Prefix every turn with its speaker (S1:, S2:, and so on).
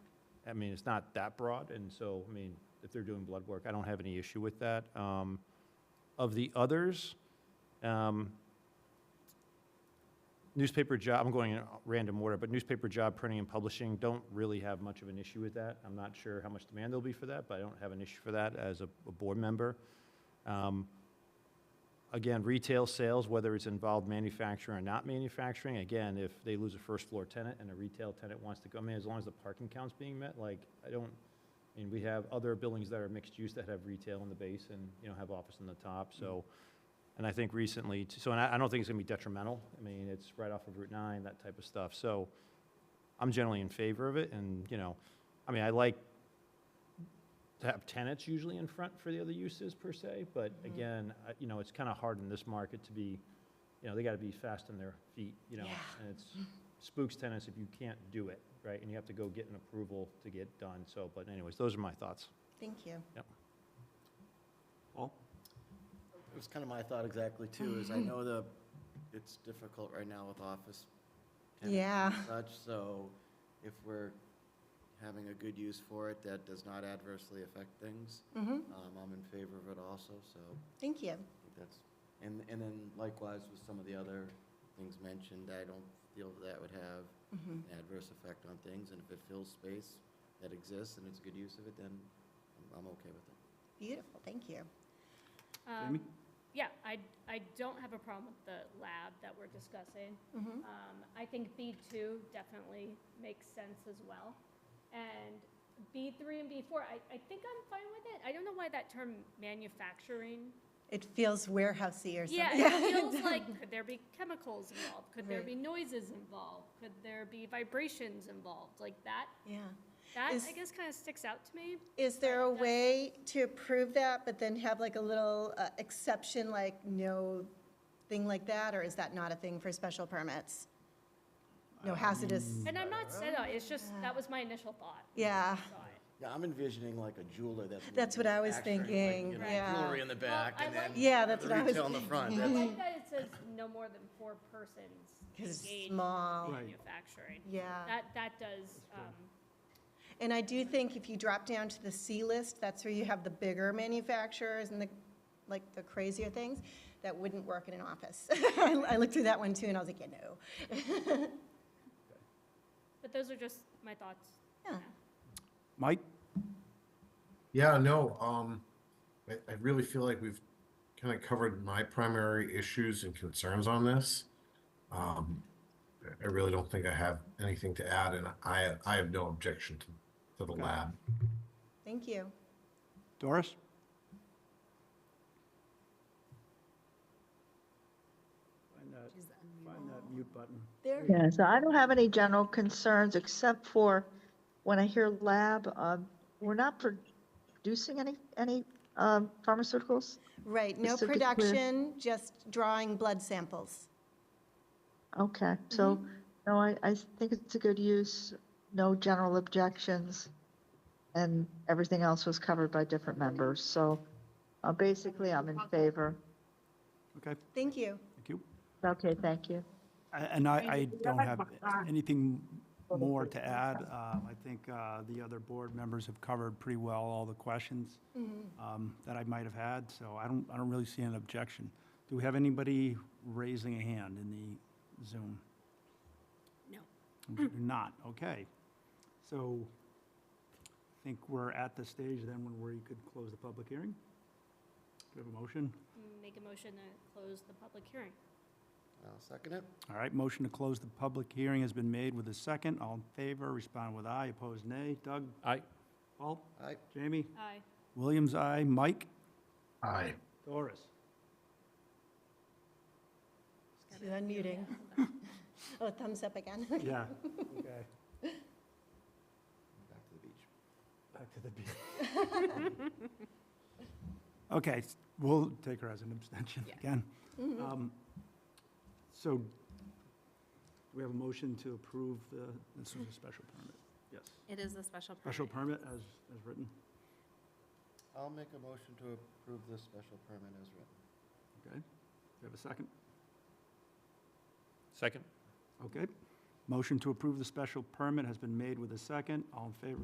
S1: I mean, it's not that broad, and so, I mean, if they're doing blood work, I don't have any issue with that. Um, Of the others, um, newspaper job, I'm going in random order, but newspaper job printing and publishing, don't really have much of an issue with that. I'm not sure how much demand there'll be for that, but I don't have an issue for that as a, a board member. Um, Again, retail sales, whether it's involved manufacturing or not manufacturing, again, if they lose a first floor tenant and a retail tenant wants to go, I mean, as long as the parking count's being met, like, I don't, I mean, we have other buildings that are mixed use that have retail in the base and, you know, have office on the top, so. And I think recently, t- so, and I, I don't think it's gonna be detrimental. I mean, it's right off of Route nine, that type of stuff, so I'm generally in favor of it and, you know, I mean, I like to have tenants usually in front for the other uses per se, but
S2: Mhm.
S1: again, I- you know, it's kind of hard in this market to be, you know, they got to be fast on their feet, you know?
S2: Yeah.
S1: And it's spooks tenants if you can't do it, right? And you have to go get an approval to get done, so, but anyways, those are my thoughts.
S2: Thank you.
S3: It was kind of my thought exactly too, is I know the, it's difficult right now with office tenants and such, so if we're having a good use for it, that does not adversely affect things,
S2: hmm
S3: um, I'm in favor of it also, so I
S2: thank you.
S3: think that's, and, and then likewise with some of the other things mentioned, I don't feel that would have
S2: hmm
S3: an adverse effect on things, and if it fills space that exists and it's good use of it, then I'm- I'm okay with it.
S2: Beautiful, thank you.
S4: Um,
S5: Jamie?
S4: Yeah, I, I don't have a problem with the lab that we're discussing.
S2: hmm
S4: Um, I think B two definitely makes sense as well. And B three and B four, I, I think I'm fine with it. I don't know why that term manufacturing.
S2: It feels warehousey or something.
S4: Yeah, it feels like, could there be chemicals involved? Could there
S2: Right.
S4: be noises involved? Could there be vibrations involved? Like that,
S2: Yeah.
S4: that
S2: Is-
S4: I guess kind of sticks out to me.
S2: Is there a
S4: Right, that's-
S2: way to approve that, but then have like a little uh, exception, like no thing like that, or is that not a thing for special permits? No hazardous,
S4: And I'm not set on, it's just,
S2: Yeah.
S4: that was my initial thought.
S2: yeah.
S4: Saw it.
S3: Yeah, I'm envisioning like a jeweler that's.
S2: That's what I was
S3: manufacturing, like,
S2: thinking,
S3: you know,
S2: yeah.
S3: Jewelry in the
S4: Well,
S3: back
S4: I
S3: and
S4: like-
S3: then.
S2: Yeah, that's
S3: the
S2: what I was
S3: Retail in the front,
S4: I
S3: that's,
S4: like that it says no more than four persons
S2: 'Cause it's
S4: engaged in
S2: small.
S5: Right.
S4: manufacturing.
S2: Yeah.
S4: That, that does, um,
S2: And I do think if you drop down to the C list, that's where you have the bigger manufacturers and the, like, the crazier things that wouldn't work in an office. I I looked through that one too, and I was like, yeah, no.
S4: but those are just my thoughts.
S2: Yeah.
S5: Mike?
S6: Yeah, no, um, I, I really feel like we've kind of covered my primary issues and concerns on this. Um, I- I really don't think I have anything to add, and I, I have no objection to, to the
S5: Okay.
S6: lab.
S2: Thank you.
S5: Doris? Find that, find that mute button.
S2: There.
S7: Yeah, so I don't have any general concerns except for when I hear lab, um, we're not producing any, any, um, pharmaceuticals?
S2: Right, no
S7: Just to be clear.
S2: production, just drawing blood samples.
S7: Okay, so, no, I, I think it's a good use, no general objections. And everything else was covered by different members, so, uh, basically I'm in favor.
S5: Okay,
S2: Thank you.
S5: thank you.
S7: Okay, thank you.
S5: A- And I, I don't have anything more to add. Um, I think uh, the other board members have covered pretty well all the questions um, that I might have had, so I don't, I don't really see an objection. Do we have anybody raising a hand in the Zoom?
S4: No.
S5: We do Not, okay. So I think we're at the stage then when we could close the public hearing? Do we have a motion?
S4: Make a motion to close the public hearing.
S3: I'll second it.
S5: All right, motion to close the public hearing has been made with a second. All in favor, respond with aye, opposed nay. Doug?
S1: Aye.
S5: Paul?
S3: Aye.
S5: Jamie?
S4: Aye.
S5: Williams, aye. Mike?
S6: Aye.
S5: Doris?
S2: She's unmuting. Oh, thumbs up again.
S5: Yeah. Okay.
S3: Back to the beach.
S5: Back to the beat. Okay, s- we'll take her as an abstention
S4: Yeah.
S5: again. Um, So do we have a motion to approve the, this was a special permit. Yes.
S8: It is a special permit.
S5: Special permit as, as written.
S3: I'll make a motion to approve this special permit as written.
S5: Okay. Do we have a second?
S1: Second?
S5: Okay. Motion to approve the special permit has been made with a second. All in favor,